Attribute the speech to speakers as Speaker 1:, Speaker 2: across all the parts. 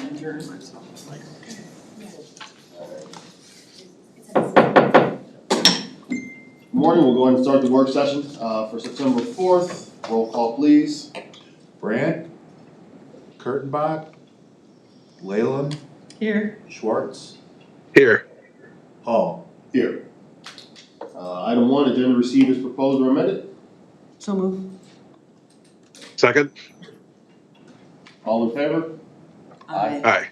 Speaker 1: adjourn.
Speaker 2: Good Morning, we'll go ahead and start the work session uh, for September fourth. Roll call, please.
Speaker 3: Brandt, Kurtenbach, Leyland,
Speaker 1: Here,
Speaker 3: Schwartz,
Speaker 4: Here,
Speaker 3: Hall.
Speaker 2: Here. Uh, Item one, agenda received is proposed or amended.
Speaker 1: so move.
Speaker 4: second,
Speaker 2: All in favor? Aye.
Speaker 4: aye,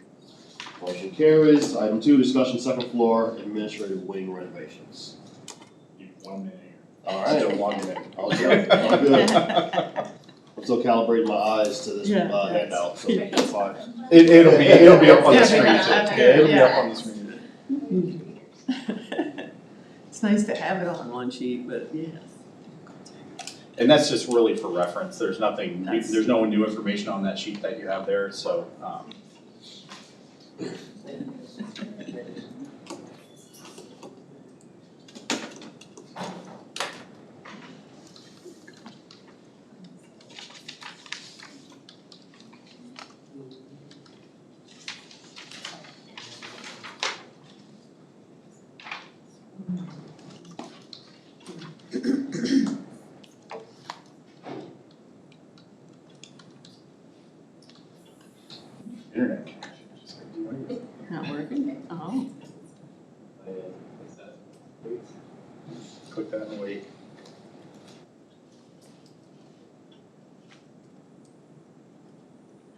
Speaker 2: Motion carries. Item two, discussion second floor administrative wing renovations.
Speaker 5: One minute.
Speaker 2: All
Speaker 5: Still
Speaker 2: right.
Speaker 5: one minute.
Speaker 2: All good. All good. I'm still calibrating my eyes to this
Speaker 1: Yeah.
Speaker 2: uh, handout, so
Speaker 1: Yeah.
Speaker 2: it's fine.
Speaker 5: It, it'll be, it'll be up on the
Speaker 1: Yeah,
Speaker 5: screen too.
Speaker 1: yeah,
Speaker 5: Yeah,
Speaker 1: okay,
Speaker 5: it'll be
Speaker 1: yeah.
Speaker 5: up on the screen.
Speaker 1: It's nice to have it on one sheet, but yes.
Speaker 5: And that's just really for reference. There's nothing, we-
Speaker 1: Nice.
Speaker 5: there's no new information on that sheet that you have there, so, um, internet connection. Just like, do it.
Speaker 1: Not working? Oh.
Speaker 5: Click that and wait.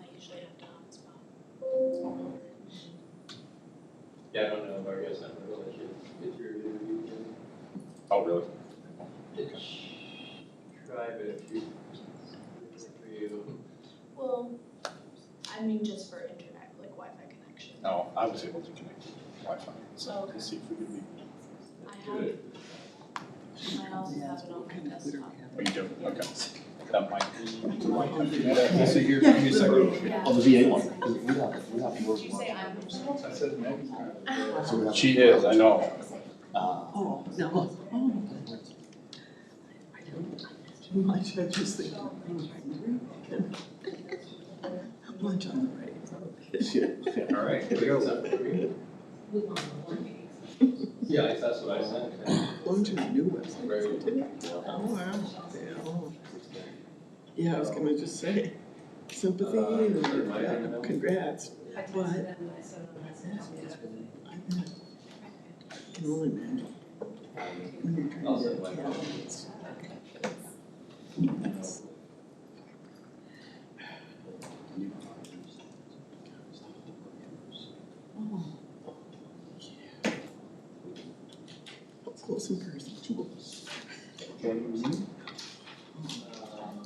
Speaker 6: I usually have to hotspot.
Speaker 7: Yeah, I don't know, but I guess I'm gonna let you get your interview done.
Speaker 5: Oh, really?
Speaker 7: Try, but if you, for you,
Speaker 6: Well, I mean, just for internet, like Wi-Fi connection.
Speaker 5: No, I was able to connect to Wi-Fi,
Speaker 1: Oh,
Speaker 5: so
Speaker 6: Okay.
Speaker 5: let's see if we can be.
Speaker 6: I
Speaker 7: do
Speaker 6: have,
Speaker 7: it.
Speaker 6: I also have it on my desktop.
Speaker 5: Oh, you do, okay. That might
Speaker 3: We'll see here
Speaker 1: in a second.
Speaker 6: Yeah.
Speaker 2: Oh, the VA one.
Speaker 6: Did you say I'm?
Speaker 5: I said maybe.
Speaker 3: So we have-
Speaker 5: She is, I know.
Speaker 1: Oh, no. Oh. I don't like that Too much, I just think. oh, Lunch on the right.
Speaker 5: All right,
Speaker 7: Here we go. Yeah, I- that's what I sent.
Speaker 1: Lunch on the new website.
Speaker 7: Very-
Speaker 1: Oh, wow. Yeah, oh. Yeah, I was gonna just say sympathy and uh, congrats. What? I bet. I Can only imagine. When you're trying
Speaker 7: I'll
Speaker 1: to-
Speaker 7: send my comments.
Speaker 1: Oh. Up Close in person.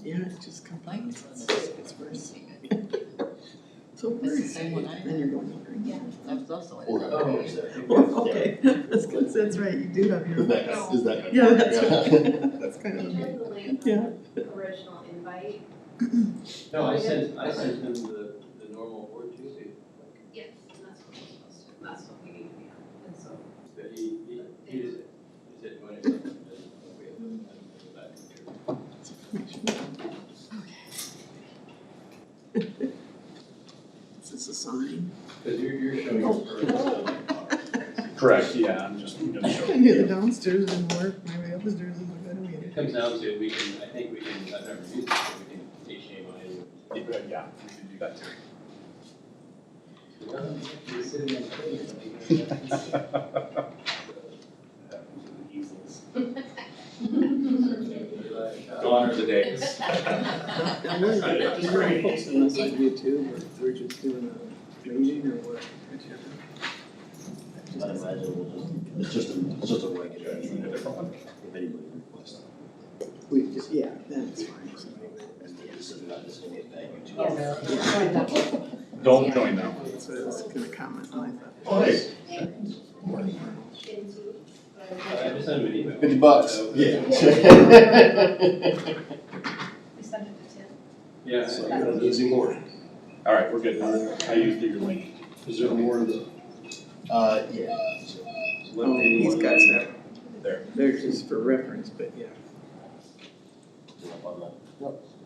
Speaker 1: Yeah, it just combines. It's it's worse. So
Speaker 8: It's the
Speaker 1: worse.
Speaker 8: same one I
Speaker 1: Then you're going over.
Speaker 6: Yeah.
Speaker 8: That's also
Speaker 2: Or-
Speaker 8: it.
Speaker 7: Oh,
Speaker 1: Oh, okay, that's good, that's right, you do have your.
Speaker 2: Is that, is that?
Speaker 1: Yeah, that's right. That's kind of amazing. Yeah.
Speaker 6: Original invite?
Speaker 7: No, I sent, I sent them the, the normal board Tuesday.
Speaker 6: Yes, and that's what we're supposed to, that's what we need to be on, and so.
Speaker 7: But he, he, he just, he said, when it's up, then we have, to go back and do it."
Speaker 1: This is a sign.
Speaker 7: Cause you're, you're showing us first.
Speaker 5: Correct, yeah, I'm just, I'm just
Speaker 1: I
Speaker 5: showing
Speaker 1: knew the
Speaker 5: you.
Speaker 1: downstairs didn't work, my way upstairs is a better way
Speaker 7: It comes down to, we can, I think we can, I've never used it, but we can take shame on it.
Speaker 5: Yeah, yeah, we can do that too.
Speaker 7: You're sitting on the plane.
Speaker 5: Go honor the day.
Speaker 1: Now, we're, we're posting this on YouTube, or we're just doing a meeting or what, whichever.
Speaker 2: I imagine we'll just, it's just, a- it's just a regular. If anybody requests.
Speaker 1: We just, yeah, then it's fine. so.
Speaker 2: This is not, this is a thank you to.
Speaker 5: Don't join them.
Speaker 1: That's what I was gonna comment on, I
Speaker 2: Oh, hey,
Speaker 7: I just sent him an email.
Speaker 2: fifty bucks,
Speaker 7: Uh,
Speaker 2: yeah.
Speaker 6: We sent it to Tim.
Speaker 7: Yeah.
Speaker 2: So, you know, there's more.
Speaker 5: All right, we're good. I used your link.
Speaker 2: Is there more of the? Uh, yeah.
Speaker 7: uh,
Speaker 1: thought. Oh, he's got that.
Speaker 5: There.
Speaker 1: They're just for reference, but yeah.
Speaker 2: Yep.